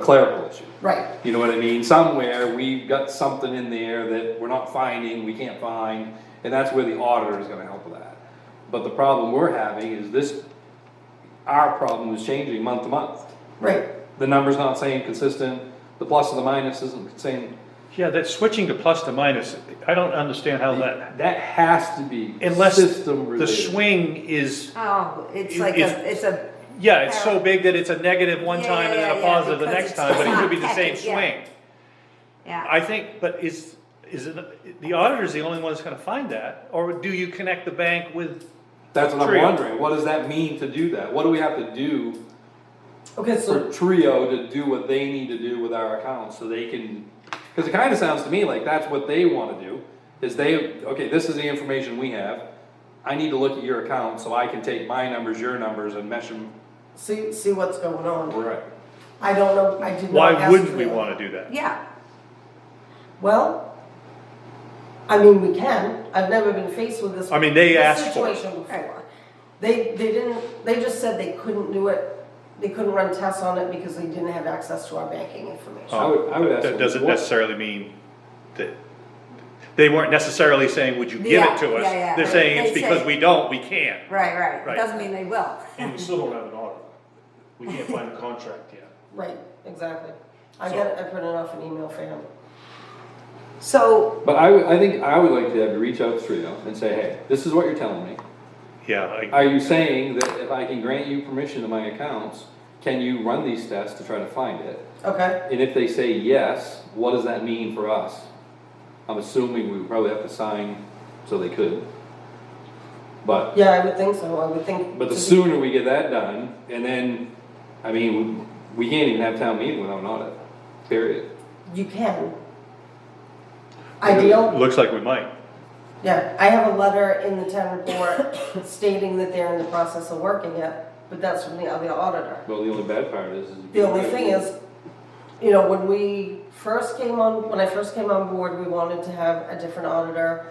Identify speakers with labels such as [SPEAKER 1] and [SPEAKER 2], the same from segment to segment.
[SPEAKER 1] clerical issue.
[SPEAKER 2] Right,
[SPEAKER 1] You know what I mean? Somewhere, we've got something in there that we're not finding, we can't find, and that's where the auditor is gonna help with that. But the problem we're having is this, our problem is changing month to month.
[SPEAKER 2] right,
[SPEAKER 1] The number's not saying consistent, the plus or the minus isn't saying,
[SPEAKER 3] Yeah, that switching to plus to minus, I don't understand how that,
[SPEAKER 1] that has to be
[SPEAKER 3] unless
[SPEAKER 1] system
[SPEAKER 3] the
[SPEAKER 1] related.
[SPEAKER 3] swing is,
[SPEAKER 4] Oh, it's
[SPEAKER 3] It-
[SPEAKER 4] like
[SPEAKER 3] it's-
[SPEAKER 4] a, it's a,
[SPEAKER 3] yeah, it's so big that it's a negative one
[SPEAKER 4] Yeah,
[SPEAKER 3] time and
[SPEAKER 4] yeah,
[SPEAKER 3] then a
[SPEAKER 4] yeah, yeah,
[SPEAKER 3] positive the
[SPEAKER 4] because
[SPEAKER 3] next
[SPEAKER 4] it's
[SPEAKER 3] time, but it could be the
[SPEAKER 4] not
[SPEAKER 3] same
[SPEAKER 4] packaged, yeah.
[SPEAKER 3] swing.
[SPEAKER 4] yeah.
[SPEAKER 3] I think, but is, is, it- the auditor's the only one that's gonna find that, or do you connect the bank with,
[SPEAKER 1] That's what I'm
[SPEAKER 3] Trio.
[SPEAKER 1] wondering, what does that mean to do that? What do we have to do
[SPEAKER 2] okay, so,
[SPEAKER 1] for Trio to do what they need to do with our accounts, so they can, cause it kinda sounds to me like that's what they wanna do, is they, okay, this is the information we have. I need to look at your account, so I can take my numbers, your numbers, and mesh them,
[SPEAKER 2] see, see what's going on.
[SPEAKER 1] right,
[SPEAKER 2] I don't know, I did not ask.
[SPEAKER 3] why wouldn't we
[SPEAKER 2] them.
[SPEAKER 3] wanna do that?
[SPEAKER 4] Yeah,
[SPEAKER 2] Well, I mean, we can, I've never been faced with this.
[SPEAKER 3] I mean, they
[SPEAKER 2] this
[SPEAKER 3] asked for it.
[SPEAKER 2] Situation before.
[SPEAKER 4] Right.
[SPEAKER 2] They, they didn't, they just said they couldn't do it, they couldn't run tests on it because they didn't have access to our banking information.
[SPEAKER 1] I would- I would ask
[SPEAKER 3] Oh, That
[SPEAKER 1] them,
[SPEAKER 3] doesn't
[SPEAKER 1] what-
[SPEAKER 3] necessarily mean that, they weren't necessarily saying, would you give
[SPEAKER 4] Yeah,
[SPEAKER 3] it to us?
[SPEAKER 4] yeah, yeah.
[SPEAKER 3] They're saying it's
[SPEAKER 4] They say-
[SPEAKER 3] because we don't, we can't.
[SPEAKER 4] right, right.
[SPEAKER 3] Right.
[SPEAKER 4] Doesn't mean they will.
[SPEAKER 5] And we still don't have an audit. We can't find a contract yet.
[SPEAKER 2] Right, exactly. I
[SPEAKER 5] So-
[SPEAKER 2] got, I printed off an email for him.
[SPEAKER 4] So,
[SPEAKER 1] But I, would- I think I would like to have you reach out to Trio and say, hey, this is what you're telling me.
[SPEAKER 3] Yeah, I,
[SPEAKER 1] Are you saying that if I can grant you permission to my accounts, can you run these tests to try to find it?
[SPEAKER 2] Okay,
[SPEAKER 1] And if they say yes, what does that mean for us? I'm assuming we would probably have to sign so they could. But,
[SPEAKER 2] yeah, I would think so, I would think.
[SPEAKER 1] but
[SPEAKER 2] to
[SPEAKER 1] the
[SPEAKER 2] be-
[SPEAKER 1] sooner we get that done, and then, I mean, we can't even have town meeting without an audit, period.
[SPEAKER 2] You can. Ideal,
[SPEAKER 3] looks like we might.
[SPEAKER 2] Yeah, I have a letter in the town report stating that they're in the process of working it, but that's from the other auditor.
[SPEAKER 1] Well, the only bad part is. is
[SPEAKER 2] The only thing is, you know, when we first came on, when I first came on board, we wanted to have a different auditor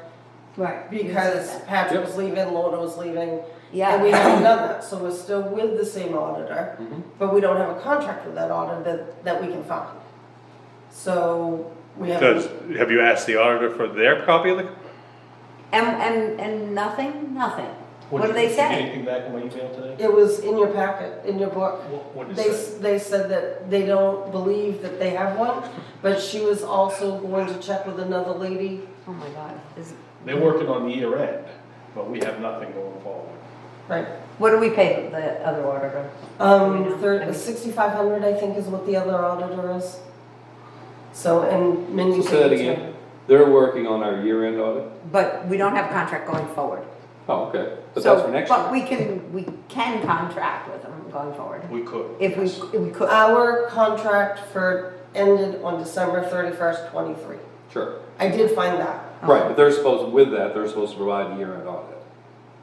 [SPEAKER 4] right.
[SPEAKER 2] because Patrick was leaving, Lorna was leaving. And we
[SPEAKER 4] Yeah,
[SPEAKER 2] haven't done that, so we're still with the same auditor, but we don't have a contract with that auditor that, that we can find. So we have.
[SPEAKER 3] Does, have you asked the auditor for their copy of the,
[SPEAKER 4] and, and, and nothing, nothing. What do
[SPEAKER 5] did-
[SPEAKER 4] they
[SPEAKER 5] did
[SPEAKER 4] say?
[SPEAKER 5] Anything back in my email today?
[SPEAKER 2] It was in your packet, in your book.
[SPEAKER 5] What, what did
[SPEAKER 2] They,
[SPEAKER 5] it
[SPEAKER 2] s-
[SPEAKER 5] say?
[SPEAKER 2] they said that they don't believe that they have one, but she was also going to check with another lady.
[SPEAKER 4] Oh my God, is,
[SPEAKER 5] They're working on the year end, but we have nothing going forward.
[SPEAKER 2] Right.
[SPEAKER 4] what do we pay the other auditor?
[SPEAKER 2] Um, thir sixty-five hundred, I think, is what the other auditor is. So, and Mindy.
[SPEAKER 1] So say that
[SPEAKER 2] can-
[SPEAKER 1] again, they're working on our year-end audit?
[SPEAKER 4] But we don't have contract going forward.
[SPEAKER 1] Oh, okay, but
[SPEAKER 4] So-
[SPEAKER 1] that's for next
[SPEAKER 4] But
[SPEAKER 1] year.
[SPEAKER 4] we can, we can contract with them going forward.
[SPEAKER 5] We could.
[SPEAKER 4] If we, if we could.
[SPEAKER 2] Our contract for, ended on December thirty-first, twenty-three.
[SPEAKER 1] Sure,
[SPEAKER 2] I did find that.
[SPEAKER 1] right, but they're supposed, with that, they're supposed to provide a year-end audit,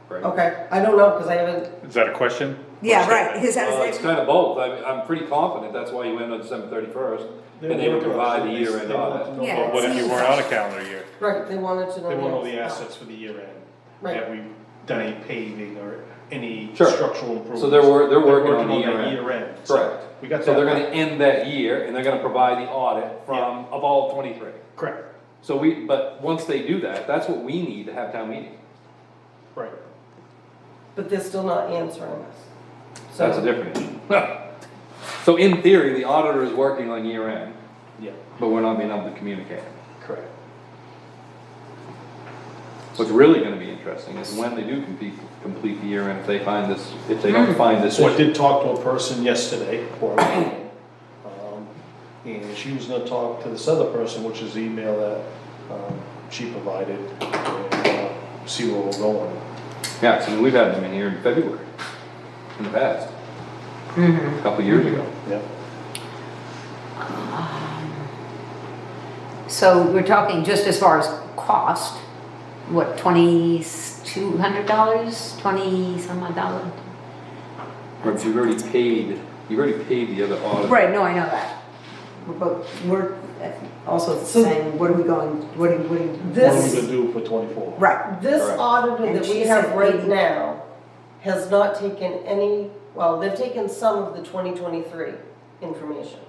[SPEAKER 1] right?
[SPEAKER 2] Okay, I don't know, because I haven't,
[SPEAKER 3] is that a question?
[SPEAKER 4] Yeah, right. Is that a
[SPEAKER 1] Well, it's
[SPEAKER 4] statement?
[SPEAKER 1] kind of both, I mean, I'm pretty confident that's why you end on December thirty-first, and they would
[SPEAKER 5] They're working on it.
[SPEAKER 1] provide the
[SPEAKER 5] They-
[SPEAKER 1] year-end
[SPEAKER 5] they want to
[SPEAKER 1] audit.
[SPEAKER 5] know
[SPEAKER 4] Yeah,
[SPEAKER 3] But
[SPEAKER 5] about
[SPEAKER 3] what if
[SPEAKER 5] the-
[SPEAKER 3] you weren't on a calendar year?
[SPEAKER 2] right, they wanted to know.
[SPEAKER 5] They want all the
[SPEAKER 2] answer.
[SPEAKER 5] assets for the year end.
[SPEAKER 2] Right.
[SPEAKER 5] Have we done any paving or any
[SPEAKER 1] Sure.
[SPEAKER 5] structural improvements?
[SPEAKER 1] So they're wor- they're working on the
[SPEAKER 5] that
[SPEAKER 1] year
[SPEAKER 5] Year end.
[SPEAKER 1] Correct.
[SPEAKER 5] We got that.
[SPEAKER 1] So they're gonna end that year, and they're gonna provide the audit from, of all twenty-three.
[SPEAKER 5] Correct,
[SPEAKER 1] So we, but once they do that, that's what we need to have town meeting,
[SPEAKER 5] right.
[SPEAKER 2] But they're still not answering us.
[SPEAKER 1] so that's a different issue. So in theory, the auditor is working on year-end,
[SPEAKER 5] Yeah,
[SPEAKER 1] but we're not being able to communicate.
[SPEAKER 5] correct.
[SPEAKER 1] What's really gonna be interesting is when they do complete, complete the year-end, if they find this, if they don't find this
[SPEAKER 5] So I
[SPEAKER 1] issue.
[SPEAKER 5] Hmm. did talk to a person yesterday, or, um, and she was gonna talk to this other person, which is the email that, um, she provided, and, uh, see where we're going.
[SPEAKER 1] Yeah, 'cause we've had them in here in February, in the past. A Couple years ago.
[SPEAKER 5] Yeah.
[SPEAKER 4] So we're talking just as far as cost, what, twenty-two hundred dollars, twenty some odd dollar?
[SPEAKER 1] But you've already paid, you've already paid the other audit.
[SPEAKER 4] Right, no, I know that. But we're also
[SPEAKER 2] So-
[SPEAKER 4] saying, what are we going, what are, what are?
[SPEAKER 5] What are we
[SPEAKER 2] This-
[SPEAKER 5] gonna do for twenty-four?
[SPEAKER 4] Right,
[SPEAKER 2] This
[SPEAKER 1] Correct.
[SPEAKER 2] auditor
[SPEAKER 4] And
[SPEAKER 2] that we
[SPEAKER 4] she
[SPEAKER 2] have
[SPEAKER 4] said
[SPEAKER 2] right
[SPEAKER 4] eighty.
[SPEAKER 2] now has not taken any, well, they've taken some of the 2023 information.